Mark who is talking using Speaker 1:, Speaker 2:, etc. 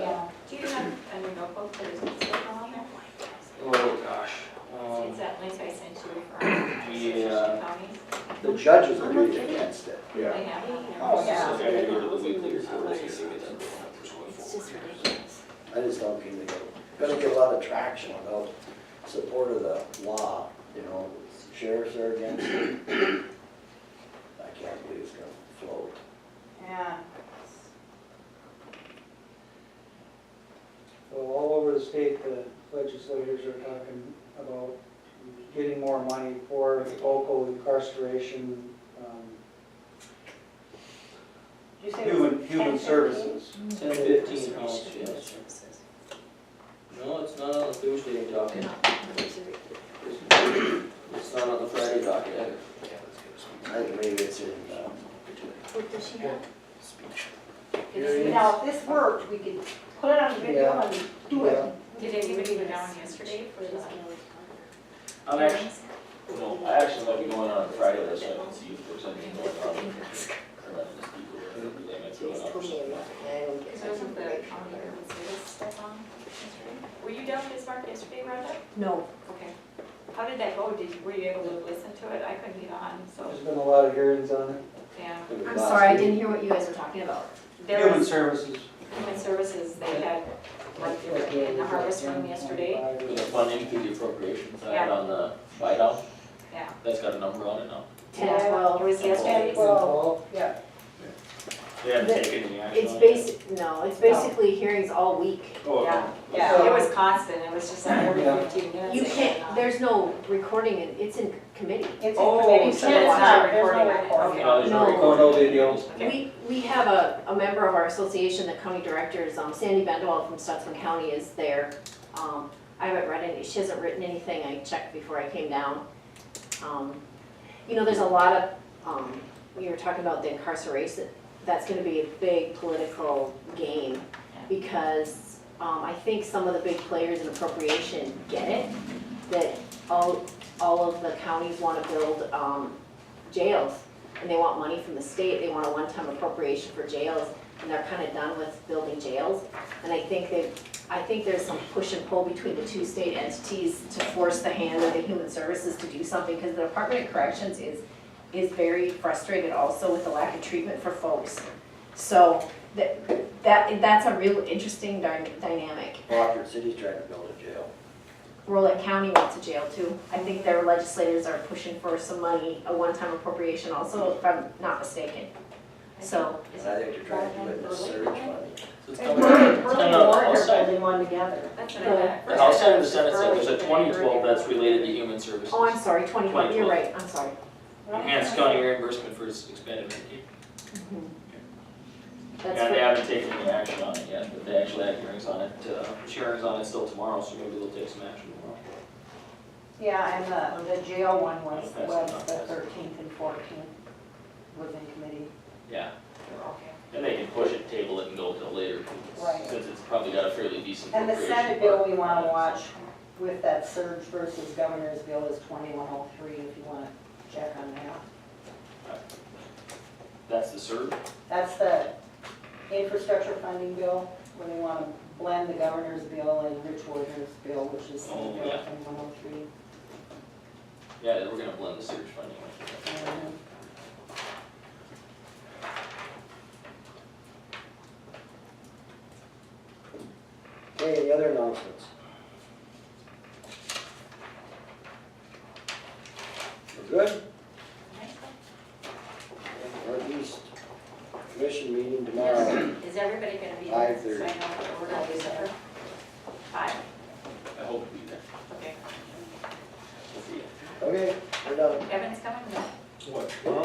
Speaker 1: both there's still on there.
Speaker 2: Oh, gosh.
Speaker 1: It's
Speaker 2: Um,
Speaker 1: that link I sent you from
Speaker 2: Yeah.
Speaker 1: Association Counties.
Speaker 3: The judges agreed against it.
Speaker 4: Yeah.
Speaker 1: They have it.
Speaker 3: Oh,
Speaker 2: I
Speaker 3: yeah.
Speaker 2: gotta go to the weekly report. I gotta get that.
Speaker 5: It's just ridiculous.
Speaker 3: I just don't think they're gonna get a lot of traction without support of the law, you know, sheriffs are against it. I can't believe it's gonna float.
Speaker 1: Yeah.
Speaker 6: So all over the state, the legislators are talking about getting more money for local incarceration, um,
Speaker 5: You say
Speaker 6: human, human services.
Speaker 2: Ten fifteen
Speaker 7: oh,
Speaker 2: house, yes. No, it's not on the Thursday docket. It's not on the Friday docket either.
Speaker 3: I think maybe it's in, uh,
Speaker 5: What does she have?
Speaker 3: Here it is.
Speaker 8: Now, if this worked, we could put it on video and do it.
Speaker 1: Did anybody go down yesterday for the?
Speaker 2: I'm actually,
Speaker 1: hearings?
Speaker 7: No, I actually might be going on Friday, so I can see if there's anything going on. Or let these people, or they might be going on or something.
Speaker 1: Because wasn't the county urban service stuff on yesterday? Were you down at Bismarck yesterday, Rhonda?
Speaker 5: No,
Speaker 1: Okay. How did that go? Did, were you able to listen to it? I couldn't get on, so,
Speaker 6: There's been a lot of hearings on it.
Speaker 1: yeah.
Speaker 3: it was
Speaker 5: I'm
Speaker 3: last
Speaker 5: sorry, I
Speaker 3: week.
Speaker 5: didn't hear what you guys were talking about.
Speaker 1: There
Speaker 6: Human
Speaker 1: was
Speaker 6: services.
Speaker 1: human services, they had, like, they were in the harvest room yesterday,
Speaker 7: For The funding through the appropriations, I had on the whiteout,
Speaker 1: yeah.
Speaker 7: that's got a number on it now.
Speaker 5: Ten, twelve.
Speaker 1: It was yesterday.
Speaker 8: Well, yeah.
Speaker 2: they haven't taken any action
Speaker 5: It's
Speaker 2: on it.
Speaker 5: basic, no, it's basically hearings all week.
Speaker 2: Oh,
Speaker 1: Yeah,
Speaker 2: no.
Speaker 1: yeah, it was constant, it was just like every
Speaker 6: Yeah.
Speaker 1: fifteen minutes.
Speaker 5: You
Speaker 1: it went
Speaker 5: can't,
Speaker 1: on.
Speaker 5: there's no recording, in- it's in committee.
Speaker 8: It's
Speaker 1: Oh,
Speaker 8: a committee,
Speaker 1: so
Speaker 8: so
Speaker 1: it's
Speaker 8: it's
Speaker 1: not
Speaker 8: not, there's no
Speaker 1: recording.
Speaker 7: Oh,
Speaker 8: recording.
Speaker 2: No, there's no
Speaker 5: No.
Speaker 2: recording.
Speaker 6: No videos.
Speaker 1: Okay.
Speaker 5: We, we have a, a member of our association, the county directors, um, Sandy Bendewell from Stutzman County is there. Um, I haven't read any, she hasn't written anything, I checked before I came down. Um, You know, there's a lot of, um, we were talking about the incarceration, that's gonna be a big political game. Because, um, I think some of the big players in appropriation get it, that all, all of the counties wanna build, um, jails and they want money from the state, they want a one-time appropriation for jails, and they're kind of done with building jails. And I think they, I think there's some push and pull between the two state entities to force the hand of the human services to do something, because the Department of Corrections is, is very frustrated also with the lack of treatment for folks. So that, that, that's a real interesting dy- dynamic.
Speaker 3: Rockford City's trying to build a jail.
Speaker 5: Rollick County went to jail too. I think their legislators are pushing for some money, a one-time appropriation also, if I'm not mistaken. So.
Speaker 3: And I think they're trying to do it in the surge fund.
Speaker 7: So it's
Speaker 8: And
Speaker 7: coming, it's coming
Speaker 8: Hurley, Hurley and
Speaker 7: on the
Speaker 8: Warren
Speaker 7: house
Speaker 8: are
Speaker 7: side.
Speaker 8: holding one together.
Speaker 1: That's what I got.
Speaker 7: The house side and the senate side, there's a twenty twelve that's related to human services.
Speaker 5: Oh, I'm sorry, 21, you're right, I'm sorry.
Speaker 7: Enhanced county reimbursement for its expanded Medicaid. Yeah, they
Speaker 5: That's
Speaker 7: haven't taken any action on it yet, but they actually have hearings on it, uh, hearings on it still tomorrow, so maybe they'll take some action tomorrow.
Speaker 8: Yeah, and the, the jail one was,
Speaker 7: That's
Speaker 8: was
Speaker 7: enough.
Speaker 8: the thirteenth and fourteenth was in committee.
Speaker 7: Yeah,
Speaker 8: Okay.
Speaker 7: and they can push it, table it, and go till later,
Speaker 8: Right.
Speaker 7: since it's probably got a fairly decent
Speaker 8: And the
Speaker 7: appropriation.
Speaker 8: Senate bill
Speaker 7: part.
Speaker 8: we wanna watch with that surge versus governor's bill is twenty-one oh three, if you wanna check on that.
Speaker 7: That's the surge.
Speaker 8: That's the infrastructure funding bill, where they want to blend the governor's bill and Rich Warder's bill, which is
Speaker 7: Oh,
Speaker 8: Senate Bill
Speaker 7: yeah.
Speaker 8: 2103.
Speaker 7: Yeah, we're gonna blend the surge funding with it.
Speaker 8: Um,
Speaker 3: Okay, any other announcements? We're good? Northeast Commission meeting tomorrow.
Speaker 1: Is everybody gonna be there?
Speaker 3: Five
Speaker 1: So I know
Speaker 3: thirty.
Speaker 1: that we're gonna be there. Five,
Speaker 7: I hope to be there.
Speaker 1: okay.
Speaker 3: Okay, we're done.
Speaker 1: Kevin's coming? No.
Speaker 2: What?